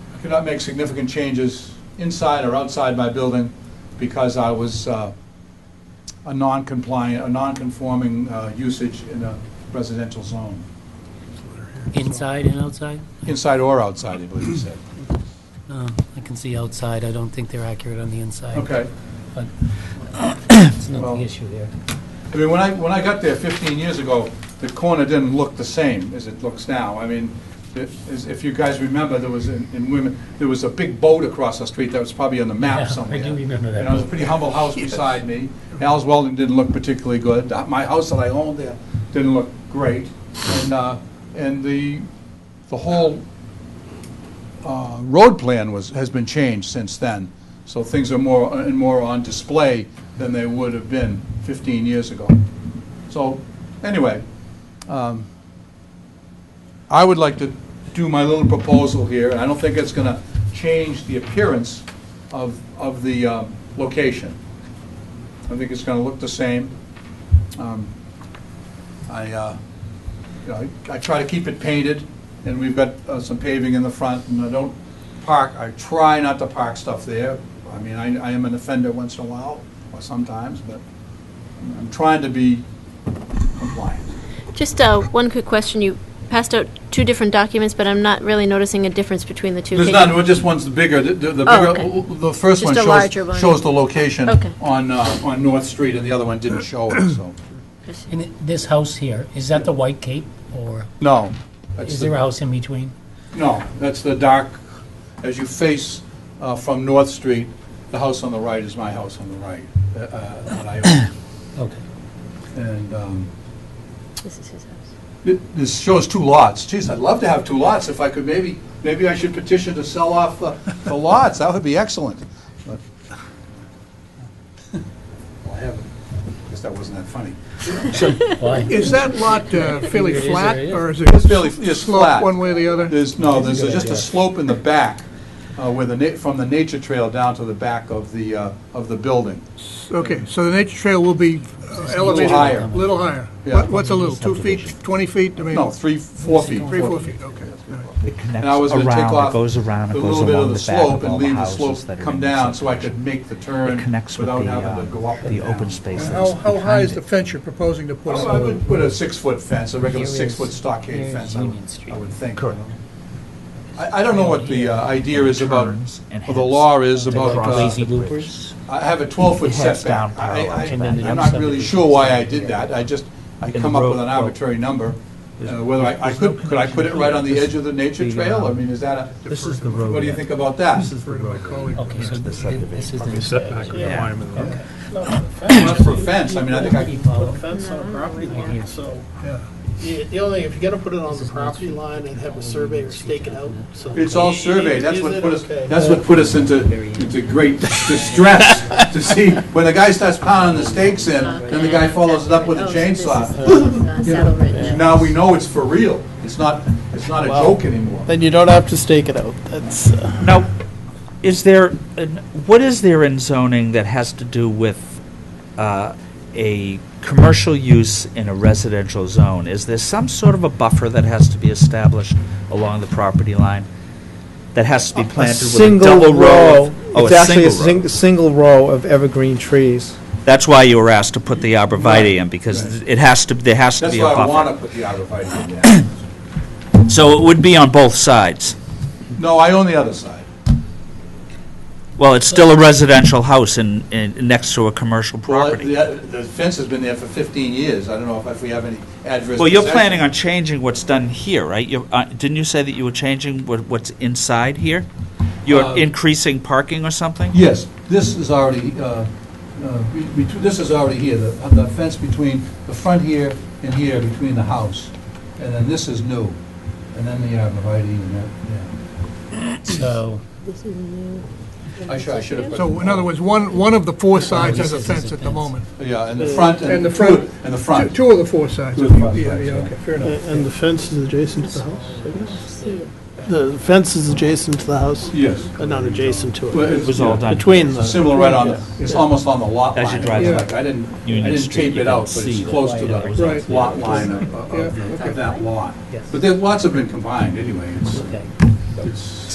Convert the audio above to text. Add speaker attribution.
Speaker 1: do not make significant changes inside or outside my building because I was uh, a non-compliant, a non-conforming uh, usage in a residential zone,
Speaker 2: Inside and outside?
Speaker 1: inside or outside, I believe you said.
Speaker 2: Uh, I can see outside, I don't think they're accurate on the inside.
Speaker 1: Okay.
Speaker 2: But it's not
Speaker 1: Well-
Speaker 2: the issue there.
Speaker 1: I mean, when I, when I got there 15 years ago, the corner didn't look the same as it looks now. I mean, it- as- if you guys remember, there was, in in women, there was a big boat across the street that was probably on the
Speaker 2: Yeah,
Speaker 1: map
Speaker 2: I
Speaker 1: somewhere.
Speaker 2: do remember that
Speaker 1: And it was a
Speaker 2: boat.
Speaker 1: pretty humble house beside me. Al's Welding didn't look particularly good. The- My house that I owned there didn't look great. And, uh, and the, the whole uh, road plan was, has been changed since then, so things are more, and more on display than they would have been 15 years ago. So, anyway, um, I would like to do my little proposal here, and I don't think it's going to change the appearance of, of the um, location. I think it's going to look the same. Um, I, uh, you know, I I try to keep it painted, and we've got uh, some paving in the front, and I don't park, I try not to park stuff there. I mean, I, I am an offender once in a while, or sometimes, but I'm trying to be compliant.
Speaker 3: Just uh, one quick question. You passed out two different documents, but I'm not really noticing a difference between the two.
Speaker 1: There's
Speaker 3: Can
Speaker 1: none,
Speaker 3: you-
Speaker 1: well, just one's the bigger, the- the the
Speaker 3: Oh,
Speaker 1: bigger, the first one
Speaker 3: Just a larger
Speaker 1: shows,
Speaker 3: one.
Speaker 1: shows the location
Speaker 3: Okay.
Speaker 1: on, uh, on North Street, and the other one didn't show it, so.
Speaker 2: And it- this house here, is that the White Cape, or
Speaker 1: No. that's
Speaker 2: is
Speaker 1: the-
Speaker 2: there a house in between?
Speaker 1: No, that's the dark, as you face uh, from North Street, the house on the right is my house on the right. uh, uh, that I
Speaker 2: Okay.
Speaker 1: own. And um,
Speaker 3: This is his house.
Speaker 1: thi- this shows two lots. Geez, I'd love to have two lots if I could, maybe, maybe I should petition to sell off the the lots, that would be excellent. But- Well, I haven't, I guess that wasn't that funny.
Speaker 2: Why?
Speaker 4: Is that lot uh, fairly
Speaker 2: Either it is
Speaker 4: flat,
Speaker 2: or it
Speaker 4: or is
Speaker 1: It's fairly,
Speaker 4: it
Speaker 1: it's
Speaker 4: sloped
Speaker 1: flat.
Speaker 4: one way or the other?
Speaker 1: There's, no, there's
Speaker 2: That's a good
Speaker 1: just a
Speaker 2: idea.
Speaker 1: slope in the back, uh, where the, na- from the nature trail down to the back of the, uh, of the building.
Speaker 4: Okay, so the nature trail will be uh, elevated?
Speaker 1: higher.
Speaker 4: Little higher.
Speaker 1: Yeah.
Speaker 4: What- What's a little, two feet, 20 feet? I mean,
Speaker 1: No, three, four feet.
Speaker 4: Three, four feet, okay. all right.
Speaker 5: It connects
Speaker 1: And I was gonna take
Speaker 5: around,
Speaker 1: off
Speaker 5: it goes around, it
Speaker 1: the
Speaker 5: goes
Speaker 1: little bit
Speaker 5: along
Speaker 1: of
Speaker 5: the
Speaker 1: the
Speaker 5: back
Speaker 1: slope
Speaker 5: of
Speaker 1: and
Speaker 5: all the
Speaker 1: leave the
Speaker 5: houses
Speaker 1: slope
Speaker 5: that are
Speaker 1: come
Speaker 5: in this
Speaker 1: down so I could
Speaker 5: subdivision.
Speaker 1: make the
Speaker 5: It
Speaker 1: turn
Speaker 5: connects with the,
Speaker 1: without having to go
Speaker 5: uh,
Speaker 1: up and
Speaker 5: the open
Speaker 1: down.
Speaker 5: space that's
Speaker 4: How, how high
Speaker 5: behind
Speaker 4: is the
Speaker 5: it.
Speaker 4: fence you're proposing to put
Speaker 1: Well, I
Speaker 4: up?
Speaker 1: would put a six-foot fence, a regular
Speaker 2: Here is-
Speaker 1: six-foot stockade
Speaker 2: here's
Speaker 1: fence, I would,
Speaker 2: Union Street.
Speaker 1: I would think.
Speaker 5: Correct.
Speaker 1: I, I don't know what the uh, idea is about,
Speaker 5: Turns and
Speaker 1: or the
Speaker 5: heads
Speaker 1: law is about,
Speaker 2: Like
Speaker 5: across
Speaker 1: uh,
Speaker 2: lazy
Speaker 5: the bridge.
Speaker 2: loopers?
Speaker 1: I have a 12-foot
Speaker 5: It heads down
Speaker 1: setback. I-
Speaker 5: parallel
Speaker 1: I-
Speaker 5: to
Speaker 2: And then
Speaker 5: that.
Speaker 1: I'm not really sure why I did that, I just, I
Speaker 5: uh, In the
Speaker 1: come up with
Speaker 5: road-
Speaker 1: an arbitrary number. Uh, Whether I, I
Speaker 5: there's no
Speaker 1: could, could I put it right on the
Speaker 5: connection.
Speaker 1: edge of the nature
Speaker 5: The,
Speaker 1: trail? I
Speaker 5: uh,
Speaker 1: mean, is that a,
Speaker 5: This is the road.
Speaker 1: what do you think about that?
Speaker 4: Refer to my colleague.
Speaker 2: Okay, so
Speaker 5: It's the
Speaker 2: this
Speaker 5: subdivision.
Speaker 2: is the... Setback
Speaker 1: Not for a fence, I mean, I think I,
Speaker 6: Put a fence on a property line, so,
Speaker 4: Yeah.
Speaker 6: the the only, if you're gonna put it on the property line and have a surveyor stake it out, so.
Speaker 1: It's all surveyed, that's
Speaker 6: Is
Speaker 1: what
Speaker 6: it?
Speaker 1: put us,
Speaker 6: Okay.
Speaker 1: that's what put us into, into great distress, to see, when the guy starts pounding the stakes in, then the guy follows it up with a
Speaker 3: Oh,
Speaker 1: chainsaw.
Speaker 3: uh, Saddle Ridge.
Speaker 1: Now we know it's for real, it's not, it's not a joke anymore.
Speaker 7: Then you don't have to stake it out. That's, uh,
Speaker 5: Now, is there, an- what is there in zoning that has to do with uh, a commercial use in a residential zone? Is there some sort of a buffer that has to be established along the property line? That has to be
Speaker 7: a
Speaker 5: planted with a
Speaker 7: single
Speaker 5: double row?
Speaker 7: row.
Speaker 5: of- Oh,
Speaker 7: It's actually a
Speaker 5: single row.
Speaker 7: sing- single row of evergreen trees.
Speaker 5: That's why you were asked to put the arborvitae in, because
Speaker 1: Right.
Speaker 5: it has to, there has to
Speaker 1: That's
Speaker 5: be a
Speaker 1: why I
Speaker 5: buffer.
Speaker 1: wanna put the arborvitae in there.
Speaker 5: So it would be on both sides.
Speaker 1: No, I own the other side.
Speaker 5: Well, it's still a residential house in, in, next to a commercial
Speaker 1: Well,
Speaker 5: property.
Speaker 1: the, the fence has been there for fifteen years, I don't know if, if we have any adverse.
Speaker 5: Well, you're
Speaker 1: possession.
Speaker 5: planning on changing what's done here, right? You're, uh, didn't you say that you were changing what, what's inside here?
Speaker 1: Uh,
Speaker 5: You're increasing parking or something?
Speaker 1: Yes, this is already, uh, uh, be- betw- this is already here, the the fence between the front here and here, between the house. And then this is new, and then the arborvitae and that, yeah.
Speaker 2: So,
Speaker 3: This is new.
Speaker 1: I should, I should have put...
Speaker 4: So in other words, one, one of the four sides has a fence at the moment.
Speaker 1: Yeah, and the front and...
Speaker 4: And the
Speaker 1: two-
Speaker 4: front.
Speaker 1: And the front.
Speaker 4: Two- Two of the four sides.
Speaker 1: Two of the four
Speaker 4: Yeah,
Speaker 1: sides,
Speaker 4: yeah,
Speaker 1: yeah.
Speaker 4: okay, fair enough.
Speaker 6: And the fence is adjacent to the house, I guess?
Speaker 3: See it.
Speaker 6: The fence is adjacent to the house,
Speaker 1: Yes.
Speaker 6: uh, not adjacent to it,
Speaker 5: It was all done.
Speaker 6: between the.
Speaker 1: Similar right on, the- it's almost on the lot line.
Speaker 5: As you drive
Speaker 1: It's
Speaker 4: up
Speaker 1: like I didn't, I
Speaker 5: Union
Speaker 1: didn't
Speaker 5: Street,
Speaker 1: tape
Speaker 5: you
Speaker 1: it
Speaker 5: can
Speaker 1: out, but
Speaker 5: see
Speaker 1: it's
Speaker 5: the
Speaker 1: close to
Speaker 5: light that was
Speaker 1: the
Speaker 4: Right.
Speaker 1: lot line of-
Speaker 4: Yeah,
Speaker 1: of of
Speaker 4: okay.
Speaker 1: that lot.
Speaker 2: Yes.
Speaker 1: But there, lots have been combined, anyway. It's-
Speaker 2: okay.
Speaker 1: It's